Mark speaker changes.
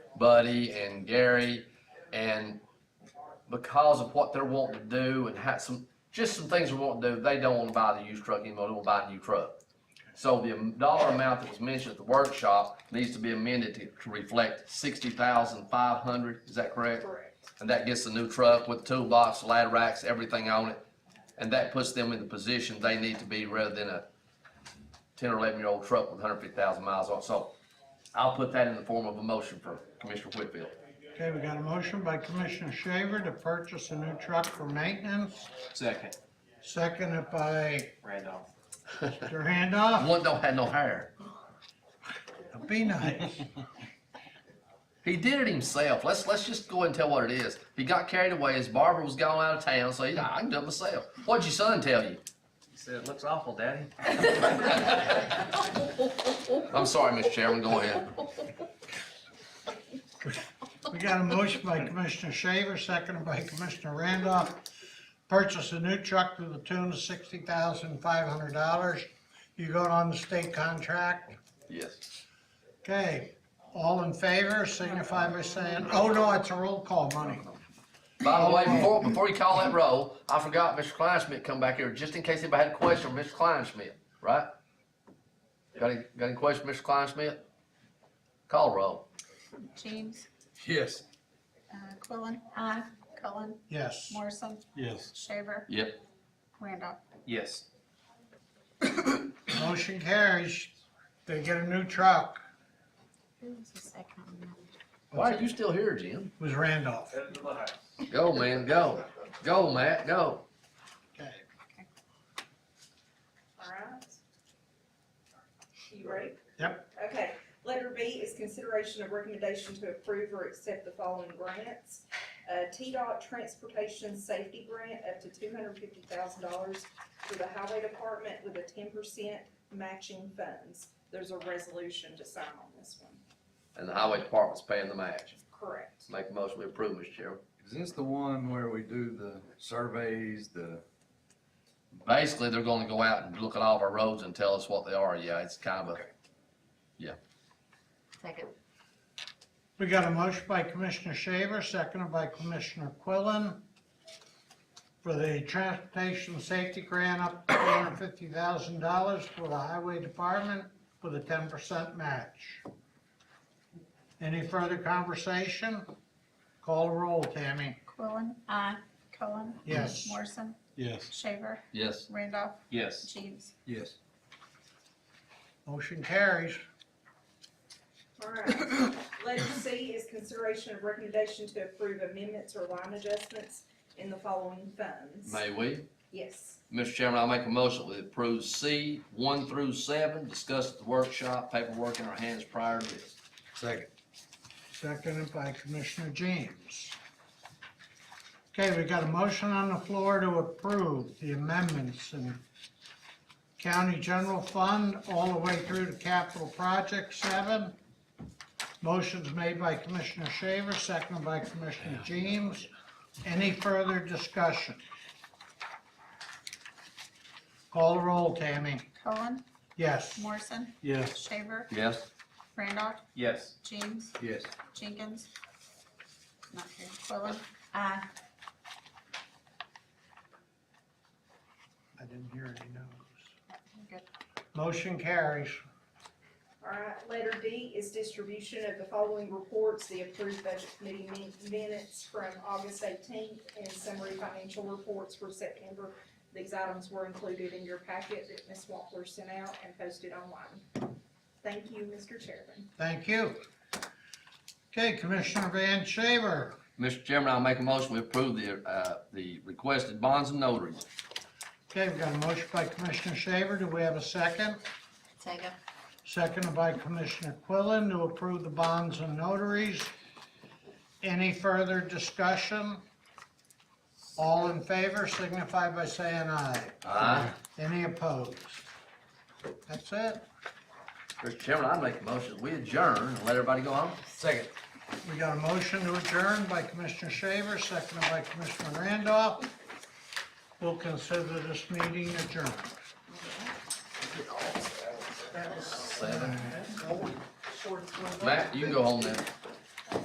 Speaker 1: Buddy and Gary, and because of what they're wanting to do and how some, just some things they're wanting to do, they don't wanna buy the used truck anymore, they wanna buy a new truck. So the am- dollar amount that was mentioned at the workshop needs to be amended to to reflect sixty thousand five hundred, is that correct?
Speaker 2: Correct.
Speaker 1: And that gets the new truck with toolbox, ladder racks, everything on it. And that puts them in the position they need to be rather than a ten or eleven year old truck with hundred fifty thousand miles on it. So I'll put that in the form of a motion for Commissioner Whitfield.
Speaker 3: Okay, we got a motion by Commissioner Shaver to purchase a new truck for maintenance,
Speaker 4: Second,
Speaker 3: seconded by
Speaker 4: Randolph.
Speaker 3: Mr. Handoff.
Speaker 1: One don't have no hair.
Speaker 3: Be nice.
Speaker 1: He did it himself. Let's, let's just go ahead and tell what it is. He got carried away. His barber was gone out of town, so he, I can do it myself. What'd your son tell you?
Speaker 4: He said, it looks awful, Daddy.
Speaker 1: I'm sorry, Mr. Chairman, go ahead.
Speaker 3: We got a motion by Commissioner Shaver, seconded by Commissioner Randolph. Purchase a new truck to the tune of sixty thousand five hundred dollars. You got on the state contract?
Speaker 1: Yes.
Speaker 3: Okay, all in favor, signify by saying, oh no, it's a roll call money.
Speaker 1: By the way, before, before you call that roll, I forgot Mr. Kleinschmidt come back here, just in case anybody had a question for Mr. Kleinschmidt, right? Got any, got any question, Mr. Kleinschmidt? Call roll.
Speaker 2: James,
Speaker 4: Yes.
Speaker 2: uh, Quillen. Aye. Cullen,
Speaker 3: Yes.
Speaker 2: Morrison,
Speaker 3: Yes.
Speaker 2: Shaver,
Speaker 1: Yep.
Speaker 2: Randolph.
Speaker 4: Yes.
Speaker 3: Motion carries. They get a new truck.
Speaker 2: Who was the second on that?
Speaker 1: Why are you still here, Jim?
Speaker 3: Was Randolph.
Speaker 1: Go, man, go. Go, Matt, go.
Speaker 3: Okay.
Speaker 5: Alright. You ready?
Speaker 3: Yep.
Speaker 5: Okay, letter B is consideration of recommendation to approve or accept the following grants. Uh, T-Dot Transportation Safety Grant up to two hundred fifty thousand dollars for the Highway Department with a ten percent matching funds. There's a resolution to sign on this one.
Speaker 1: And the highway department's paying the match.
Speaker 5: Correct.
Speaker 1: Make a motion, we approve, Mr. Chairman.
Speaker 6: Is this the one where we do the surveys, the,
Speaker 1: Basically, they're gonna go out and look at all of our roads and tell us what they are, yeah, it's kind of a,
Speaker 2: Second.
Speaker 3: We got a motion by Commissioner Shaver, seconded by Commissioner Quillen for the transportation safety grant up to four hundred fifty thousand dollars for the highway department with a ten percent match. Any further conversation? Call the roll, Tammy.
Speaker 2: Quillen. Aye. Cullen,
Speaker 3: Yes.
Speaker 2: Morrison,
Speaker 3: Yes.
Speaker 2: Shaver,
Speaker 1: yes.
Speaker 2: Randolph,
Speaker 4: Yes.
Speaker 2: James.
Speaker 6: yes,
Speaker 3: Motion carries.
Speaker 5: Alright, letter C is consideration of recommendation to approve amendments or line adjustments in the following funds.
Speaker 1: May we?
Speaker 5: Yes.
Speaker 1: Mr. Chairman, I'll make a motion that approves C one through seven, discussed at the workshop, paperwork in our hands prior to this.
Speaker 6: second,
Speaker 3: Seconded by Commissioner James. Okay, we got a motion on the floor to approve the amendments in County General Fund all the way through to Capital Project Seven. Motion's made by Commissioner Shaver, seconded by Commissioner James. Any further discussion? Call the roll, Tammy.
Speaker 2: Cullen,
Speaker 3: Yes.
Speaker 2: Morrison,
Speaker 3: Yes.
Speaker 2: Shaver,
Speaker 1: Yes.
Speaker 2: Randolph,
Speaker 4: Yes.
Speaker 2: James,
Speaker 6: yes.
Speaker 2: Jenkins. Not here. Quillen. Aye.
Speaker 3: I didn't hear any no's.
Speaker 2: Good.
Speaker 3: Motion carries.
Speaker 5: All right, letter D is distribution of the following reports, the approved budget committee min- minutes from August eighteenth and summary financial reports for September. These items were included in your packet that Ms. Wampler sent out and posted online. Thank you, Mr. Chairman.
Speaker 3: Thank you. Okay, Commissioner Van Shaver,
Speaker 1: Mr. Chairman, I'll make a motion, we approve the, uh, the requested bonds and notaries.
Speaker 3: okay, we've got a motion by Commissioner Shaver, do we have a second?
Speaker 2: Second.
Speaker 3: Seconded by Commissioner Quillen to approve the bonds and notaries. Any further discussion? All in favor signify by saying aye.
Speaker 1: Aye.
Speaker 3: Any opposed? That's it,
Speaker 1: Mr. Chairman, I make a motion, we adjourn and let everybody go home.
Speaker 6: Second.
Speaker 3: we got a motion to adjourn by Commissioner Shaver, seconded by Commissioner Randolph. We'll consider this meeting adjourned.
Speaker 1: Seven. Matt, you can go home now.